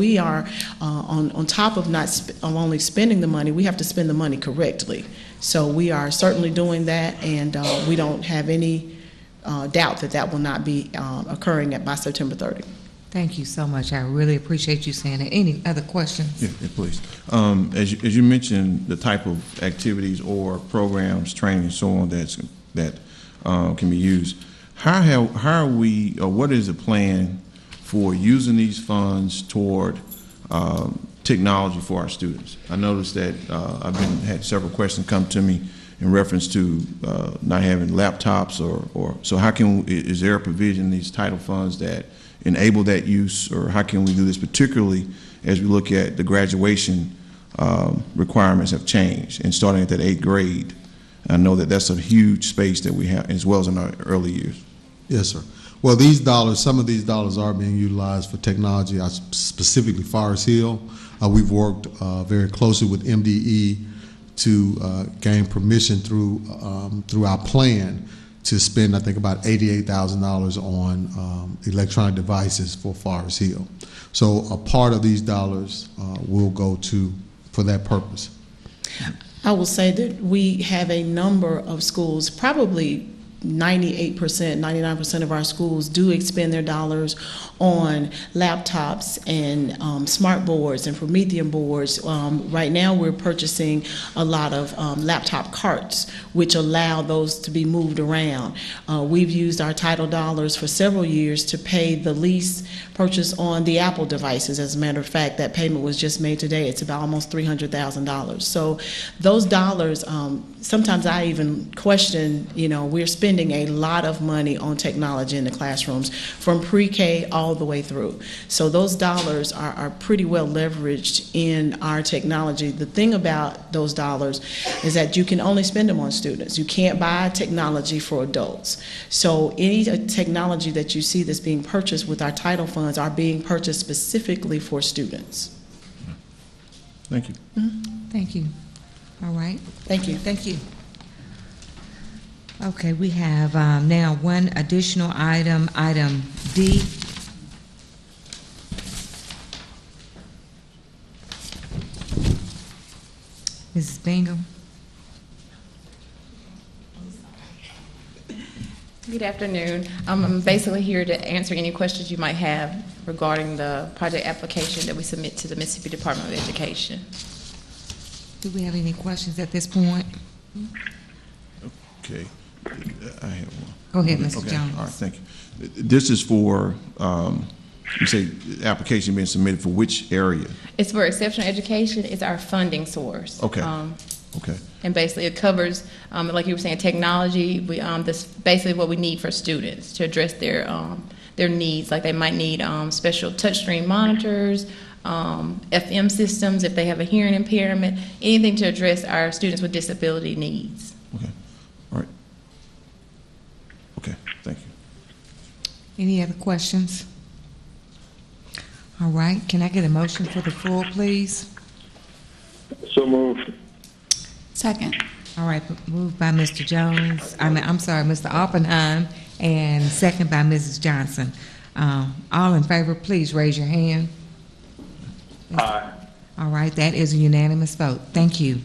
We are, uh, on, on top of not, sp- of only spending the money, we have to spend the money correctly. So we are certainly doing that, and uh, we don't have any uh, doubt that that will not be um, occurring at- by September 30. Thank you so much. I really appreciate you saying that. Any other questions? Yeah, yeah, please. Um, As you, as you mentioned, the type of activities or programs, training and so on that's, that uh, can be used, how, have- how are we, or what is the plan for using these funds toward um, technology for our students? I noticed that uh, I've been, had several questions come to me in reference to uh, not having laptops or, or, so how can, i- is there a provision in these title funds that enable that use, or how can we do this particularly as we look at the graduation um, requirements have changed, and starting at that eighth grade, I know that that's a huge space that we have, as well as in our early years. Yes, sir. Well, these dollars, some of these dollars are being utilized for technology, uh, specifically Forest Hill. Uh, We've worked uh, very closely with MDE to uh, gain permission through, um, through our plan to spend, I think, about $88,000 on um, electronic devices for Forest Hill. So a part of these dollars uh, will go to, for that purpose. I will say that we have a number of schools, probably 98%, 99% of our schools do expend their dollars on laptops and um, smart boards and Promethean boards. Um, right now, we're purchasing a lot of um, laptop carts, which allow those to be moved around. Uh, we've used our title dollars for several years to pay the lease purchase on the Apple devices. As a matter of fact, that payment was just made today. It's about almost $300,000. So those dollars, um, sometimes I even question, you know, we're spending a lot of money on technology in the classrooms from pre K all the way through. So those dollars are, are pretty well leveraged in our technology. The thing about those dollars is that you can only spend them on students. You can't buy technology for adults. So any uh, technology that you see that's being purchased with our title funds are being purchased specifically for students. Thank you. Thank you. All right. Thank you. Thank you. Okay, we have um, now one additional item, item D. Mrs. Bingham? Good afternoon. Um, I'm basically here to answer any questions you might have regarding the project application that we submit to the Mississippi Department of Education. Do we have any questions at this point? Okay, I have one. Go ahead, Mr. Okay, Jones. All right, thank you. This is for, um, you say, the application being submitted for which area? It's for exceptional education, it's our funding source. Okay. Um, Okay, And basically, it covers, um, like you were saying, technology, we, um, this, basically what we need for students to address their, um, their needs, like they might need, um, special touchscreen monitors, um, FM systems if they have a hearing impairment, anything to address our students with disability needs. okay, all right. Okay, thank you. Any other questions? All right, can I get a motion for the full, please? So moved. Second. All right, moved by Mr. Jones, I mean, I'm sorry, Mr. Oppenheim, and second by Mrs. Johnson. Um, All in favor, please raise your hand. Aye. All right, that is a unanimous vote. Thank you.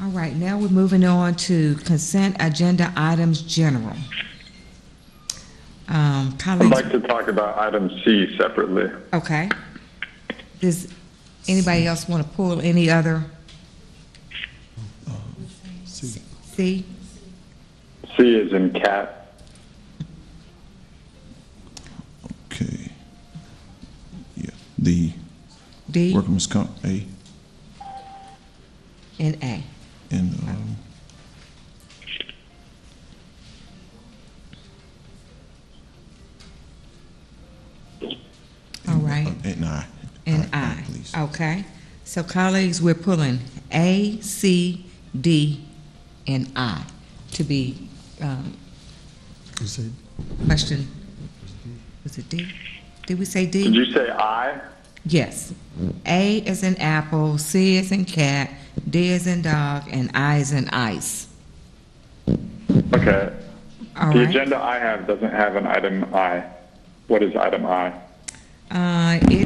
All right, now we're moving on to consent agenda items general. Um, I'd Colleagues, like to talk about item C separately. okay. Does anybody else want to pull any other? C? C is in cat. Okay. Yeah, the D? workers' comp, A, and A. and, um, All right, and I. and All right, I. Please. Okay. So colleagues, we're pulling A, C, D, and I to be um, You said- questioned. Was it D? Did we say Did D? you say I? Yes. A is in apple, C is in cat, D is in dog, and I is in ice. Okay. All The right. agenda I have doesn't have an item I. What is item I? Uh, it